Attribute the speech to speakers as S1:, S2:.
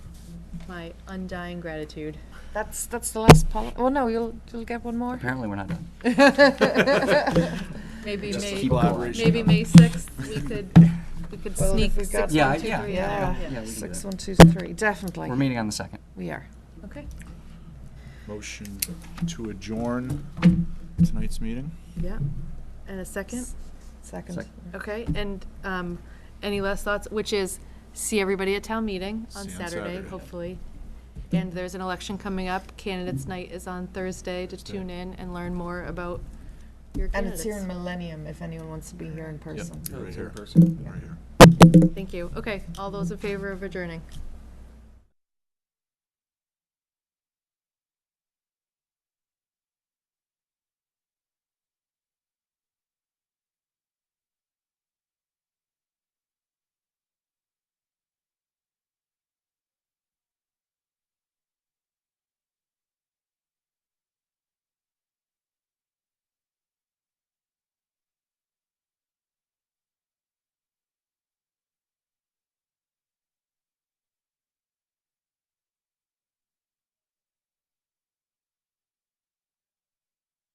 S1: my undying gratitude.
S2: That's, that's the last poli, well, no, you'll, you'll get one more.
S3: Apparently, we're not done.
S1: Maybe
S3: Just
S1: May,
S3: keep going.
S1: maybe May sixth, we could, we could
S2: Well, if
S1: sneak
S2: we've
S1: six,
S2: got-
S1: one, two, three. in
S3: Yeah, yeah,
S1: there.
S2: Yeah,
S3: yeah, we can do
S2: six,
S3: that.
S2: one, two, three, definitely.
S3: We're meeting on the second.
S2: We are.
S1: Okay,
S4: Motion to adjourn tonight's meeting.
S1: yeah. And a second?
S2: Second.
S3: Sec-
S1: Okay, and um, any last thoughts, which is, see everybody at town meeting on
S4: See you on
S1: Saturday,
S4: Saturday.
S1: hopefully. And there's an election coming up, candidates' night is on Thursday, to
S4: Thursday.
S1: tune in and learn more about your
S2: And
S1: candidates.
S2: it's here in Millennium, if anyone wants to be here Oh, in
S4: Yep,
S2: person.
S4: Right here, right here.
S1: Thank you. Okay, all those in favor of adjourning?